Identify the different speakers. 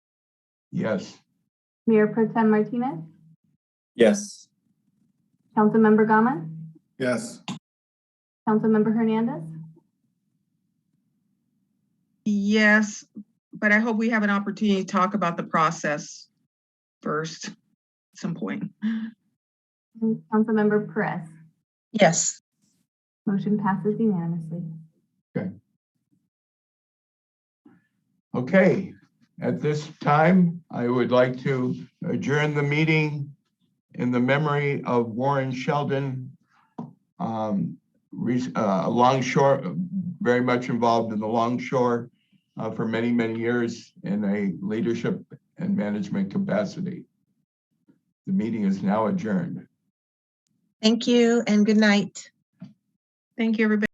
Speaker 1: Yes.
Speaker 2: Mayor Pro Tem Martinez,
Speaker 3: Yes.
Speaker 2: Councilmember Gama,
Speaker 1: Yes.
Speaker 2: Councilmember Hernandez,
Speaker 4: Yes, but I hope we have an opportunity to talk about the process first at some point.
Speaker 2: and Councilmember Perez.
Speaker 4: Yes.
Speaker 2: Motion passes unanimously.
Speaker 1: Okay, at this time, I would like to adjourn the meeting in the memory of Warren Sheldon, um, re- uh, longshore, very much involved in the longshore uh, for many, many years in a leadership and management capacity. The meeting is now adjourned.
Speaker 5: Thank you and good night.
Speaker 4: Thank you, everybody.